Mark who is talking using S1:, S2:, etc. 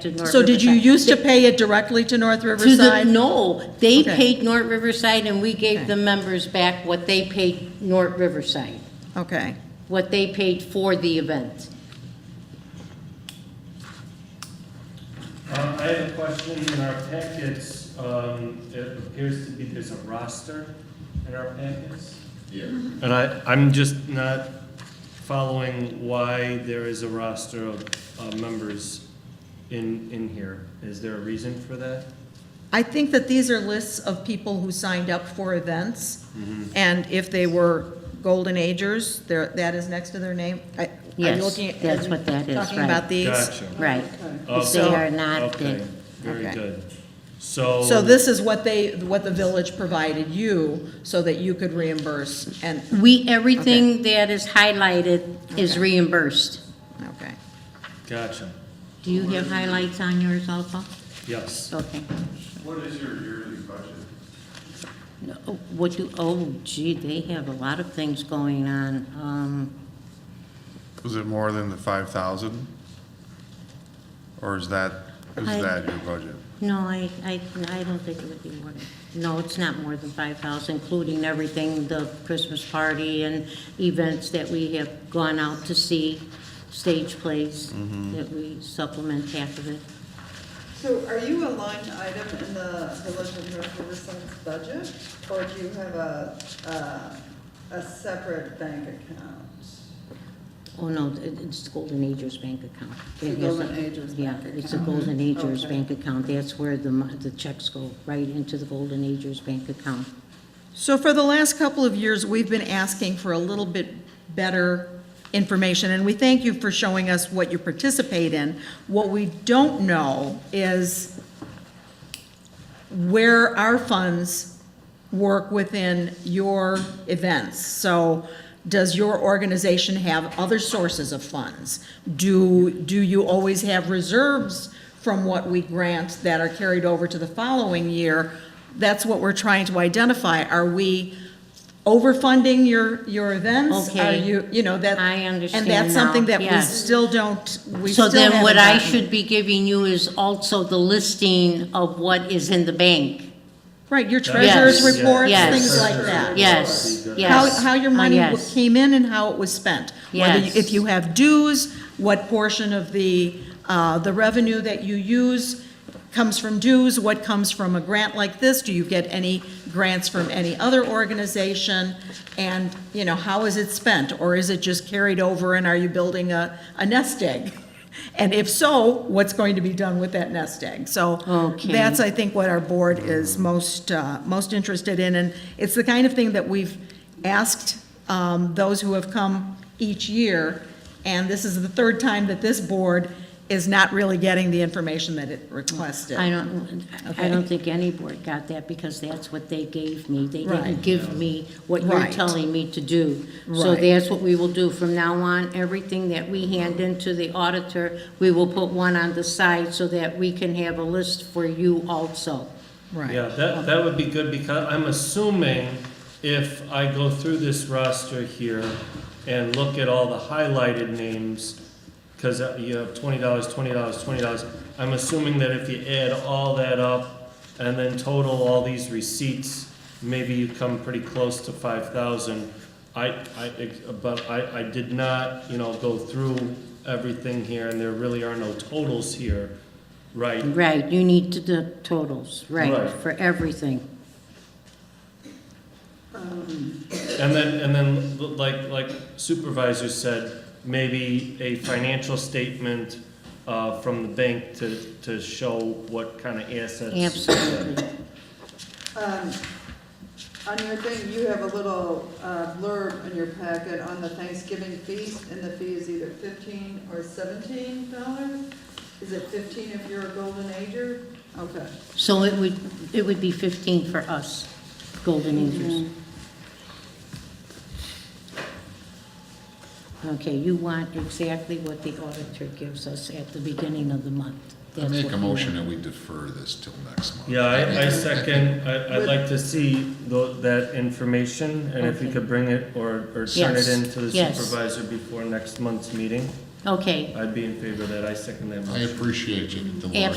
S1: to North Riverside.
S2: So did you used to pay it directly to North
S1: To the,
S2: Riverside?
S1: no, they
S2: Okay.
S1: paid North Riverside and we gave
S2: Okay.
S1: the members back what they paid North Riverside,
S2: Okay,
S1: what they paid for the event.
S3: Um, I have a question. In our packets, um, it appears to be there's a roster in our packets. Yeah. And I, I'm just not following why there is a roster of, uh members in, in here. Is there a reason for that?
S2: I think that these are lists of people who signed up for events,
S1: Mm-hmm.
S2: and if they were golden agers, there, that is next to their name. I- are you
S1: Yes,
S2: looking at-
S1: that's what that is,
S2: Talking
S1: right.
S2: about these?
S3: Gotcha.
S1: Right. If they
S3: Okay.
S1: are not,
S3: Okay,
S1: then,
S3: very
S2: Okay.
S3: good. So.
S2: So this is what they, what the village provided you, so that you could reimburse, and,
S1: we, everything that is highlighted is
S2: Okay.
S1: reimbursed.
S2: okay.
S3: Gotcha.
S1: Do you have highlights on yours also?
S3: Yes.
S1: Okay.
S4: What is your yearly budget?
S1: No, What do, oh gee, they have a lot of things going on. Um,
S4: Was it more than the five thousand? Or is that, is
S1: I-
S4: that your budget?
S1: No, I, I, I don't think it would be more than, no, it's not more than five thousand, including everything, the Christmas party and events that we have gone out to see, stage plays, that we supplement half of it.
S5: So are you a line item in the Village of North Riverside's budget? Or do you have a, a, a separate bank account?
S1: Oh, no, it- it's Golden Agers Bank account.
S5: The
S1: It has a-
S5: Golden Agers
S1: Yeah,
S5: bank
S1: it's a Golden Agers
S5: Okay.
S1: Bank account, that's where the, mon- the checks go, right into the Golden Agers Bank account.
S2: So for the last couple of years, we've been asking for a little bit better information, and we thank you for showing us what you participate in. What we don't know is where our funds work within your events. So does your organization have other sources of funds? Do, do you always have reserves from what we grant that are carried over to the following year? That's what we're trying to identify. Are we overfunding your, your events?
S1: Okay.
S2: Are you, you know, that.
S1: I understand
S2: And that's
S1: now,
S2: something that we
S1: yes.
S2: still don't, we
S1: So
S2: still
S1: then what
S2: haven't
S1: I
S2: gotten.
S1: should be giving you is also the listing of what is in the bank.
S2: Right, your treasurer's
S1: Yes.
S2: reports,
S1: Yes.
S2: things like that.
S1: Yes,
S2: how,
S1: yes.
S2: how your
S1: Uh,
S2: money w-
S1: yes.
S2: came in and how it was spent. Whether, you-
S1: Yes.
S2: if you have dues, what portion of the, uh, the revenue that you use comes from dues, what comes from a grant like this? Do you get any grants from any other organization? And, you know, how is it spent? Or is it just carried over and are you building a, a nest egg? And if so, what's going to be done with that nest egg? So
S1: Okay.
S2: that's, I think, what our board is most, uh, most interested in, and it's the kind of thing that we've asked um, those who have come each year, and this is the third time that this board is not really getting the information that it requested.
S1: I don't, I
S2: Okay.
S1: don't think any board got that because that's what they gave me. They
S2: Right.
S1: didn't give me what you're
S2: Right.
S1: telling me to do. So
S2: Right.
S1: that's what we will do. From now on, everything that we hand into the auditor, we will put one on the side so that we can have a list for you also.
S2: Right,
S3: Yeah, that, that would be good because I'm assuming if I go through this roster here and look at all the highlighted names, because you have twenty dollars, twenty dollars, twenty dollars, I'm assuming that if you add all that up and then total all these receipts, maybe you come pretty close to five thousand. I, I, but I, I did not, you know, go through everything here and there really are no totals here, right?
S2: Mm-hmm.
S1: Right, you need to the totals, right,
S3: Right.
S1: for everything.
S3: And then, and then, like, like supervisor said, maybe a financial statement, uh, from the bank to, to show what kind of assets.
S1: Absolutely.
S5: Um, On your thing, you have a little uh, blurb in your packet on the Thanksgiving feast, and the fee is either fifteen or seventeen dollars? Is it fifteen if you're a golden ager? Okay.
S1: So it would, it would be 15 for us, Golden Acres. Okay, you want exactly what the auditor gives us at the beginning of the month.
S6: I
S1: That's
S6: make
S1: what
S6: a
S1: we
S6: motion
S1: want.
S6: that we defer this till next month.
S3: Yeah, I, I
S6: think-
S3: second, I, I'd like to see tho- that information, and if you
S1: Okay.
S3: could bring it or, or turn it
S1: Yes,
S3: in to the
S1: yes.
S3: supervisor before next month's meeting.
S7: Okay,
S1: I'd be in favor of that, I second that motion.
S3: I appreciate you, Dolores.